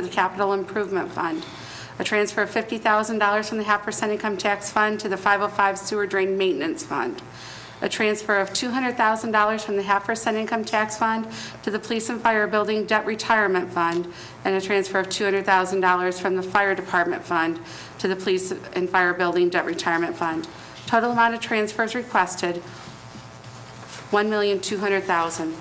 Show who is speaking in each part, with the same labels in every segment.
Speaker 1: for the Capital Improvement Fund. A transfer of $50,000 from the half percent income tax fund to the 505 sewer drain maintenance fund. A transfer of $200,000 from the half percent income tax fund to the police and fire building debt retirement fund. And a transfer of $200,000 from the fire department fund to the police and fire building debt retirement fund. Total amount of transfers requested, $1,200,000.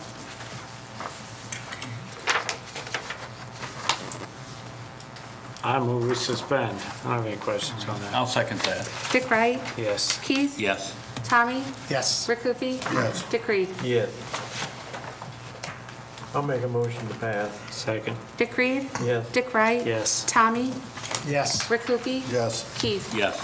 Speaker 2: I move we suspend. I don't have any questions on that.
Speaker 3: I'll second that.
Speaker 1: Dick Wright?
Speaker 2: Yes.
Speaker 1: Keith?
Speaker 3: Yes.
Speaker 1: Tommy?
Speaker 4: Yes.
Speaker 1: Rick Hoopie? Yes. Dick Reed?
Speaker 5: Yes. I'll make a motion to pass.
Speaker 2: Second.
Speaker 1: Dick Reed?
Speaker 5: Yes.
Speaker 1: Dick Wright?
Speaker 2: Yes.
Speaker 1: Tommy?
Speaker 4: Yes.
Speaker 1: Rick Hoopie?
Speaker 4: Yes.
Speaker 1: Keith?
Speaker 3: Yes.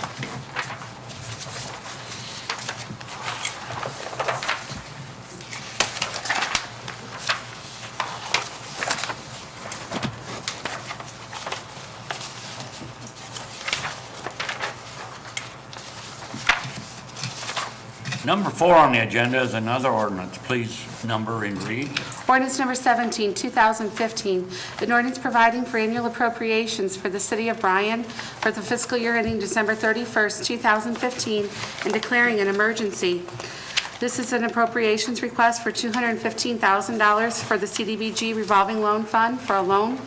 Speaker 3: Number four on the agenda is another ordinance. Please number and read.
Speaker 1: Ordinance number 17, 2015, an ordinance providing for annual appropriations for the city of Bryan for the fiscal year ending December 31st, 2015, and declaring an emergency. This is an appropriations request for $215,000 for the CDBG revolving loan fund for a loan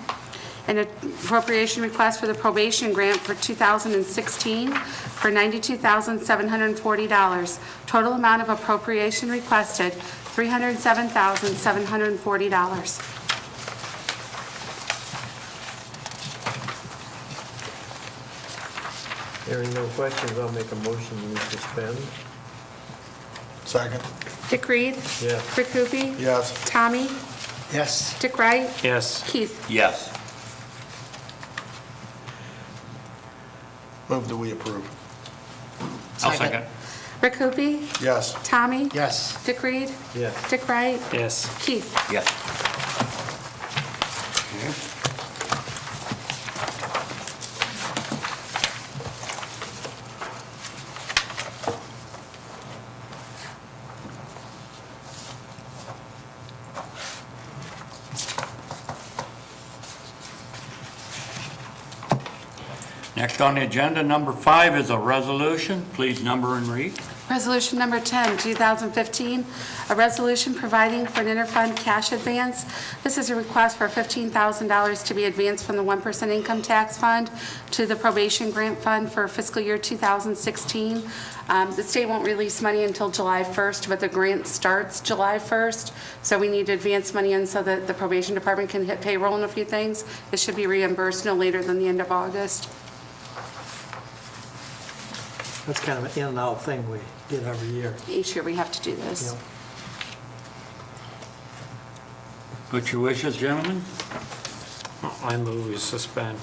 Speaker 1: an appropriation request for the probation grant for 2016 for $92,740. Total amount of appropriation requested, $307,740.
Speaker 5: Hearing no questions, I'll make a motion to suspend.
Speaker 4: Second.
Speaker 1: Dick Reed?
Speaker 5: Yes.
Speaker 1: Rick Hoopie?
Speaker 4: Yes.
Speaker 1: Tommy?
Speaker 4: Yes.
Speaker 1: Dick Wright?
Speaker 2: Yes.
Speaker 1: Keith?
Speaker 3: Yes.
Speaker 4: Move that we approve.
Speaker 3: I'll second.
Speaker 4: Second.
Speaker 1: Rick Hoopie?
Speaker 4: Yes.
Speaker 1: Tommy?
Speaker 4: Yes.
Speaker 1: Dick Reed?
Speaker 5: Yes.
Speaker 1: Dick Wright?
Speaker 2: Yes.
Speaker 1: Keith?
Speaker 3: Yes. Next on the agenda, number five is a resolution. Please number and read.
Speaker 1: Resolution number 10, 2015, a resolution providing for an interfund cash advance. This is a request for $15,000 to be advanced from the 1% income tax fund to the probation grant fund for fiscal year 2016. Um, The state won't release money until July 1st, but the grant starts July 1st, so we need to advance money in so that the probation department can hit payroll and a few things. It should be reimbursed no later than the end of August.
Speaker 6: That's kind of an in and out thing we get every year.
Speaker 1: Each year, we have to do this.
Speaker 6: Yep.
Speaker 3: What's your wishes, gentlemen?
Speaker 2: I move we suspend.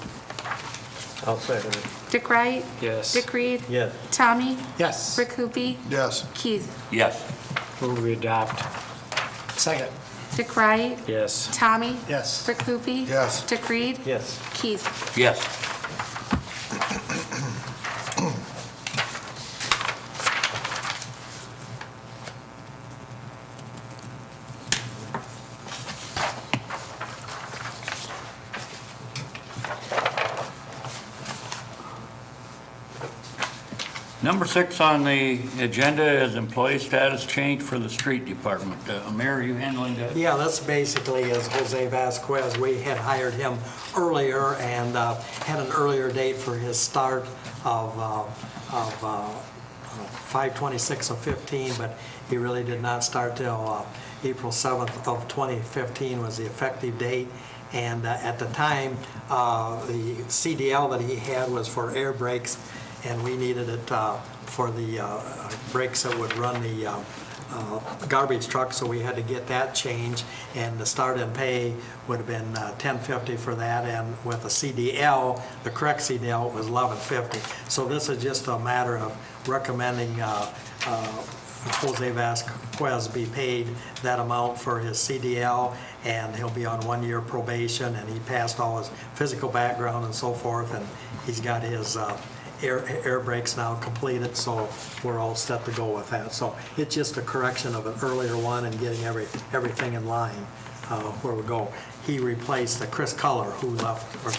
Speaker 5: I'll second it.
Speaker 1: Dick Wright?
Speaker 2: Yes.
Speaker 1: Dick Reed?
Speaker 5: Yes.
Speaker 1: Tommy?
Speaker 4: Yes.
Speaker 1: Rick Hoopie?
Speaker 4: Yes.
Speaker 1: Keith?
Speaker 3: Yes.
Speaker 2: Move we adopt.
Speaker 4: Second.
Speaker 1: Dick Wright?
Speaker 2: Yes.
Speaker 1: Tommy?
Speaker 4: Yes.
Speaker 1: Rick Hoopie?
Speaker 4: Yes.
Speaker 1: Dick Reed?
Speaker 5: Yes.
Speaker 1: Keith?
Speaker 3: Yes. Number six on the agenda is employee status change for the street department. Uh, Mayor, are you handling that?
Speaker 6: Yeah, that's basically as Jose Vasquez, we had hired him earlier and uh, had an earlier date for his start of, uh, of uh, 5/26 of 15, but he really did not start till uh, April 7th of 2015 was the effective date. And uh, at the time, uh, the CDL that he had was for air brakes, and we needed it uh, for the uh, brakes that would run the uh, uh, garbage truck, so we had to get that changed. And the start and pay would have been uh, 1050 for that, and with the CDL, the correct CDL was 1150. So this is just a matter of recommending uh, uh, Jose Vasquez be paid that amount for his CDL, and he'll be on one-year probation, and he passed all his physical background and so forth, and he's got his uh, air air brakes now completed, so we're all set to go with that. So it's just a correction of an earlier one and getting every, everything in line uh, where we go. He replaced the Chris Culler who left, or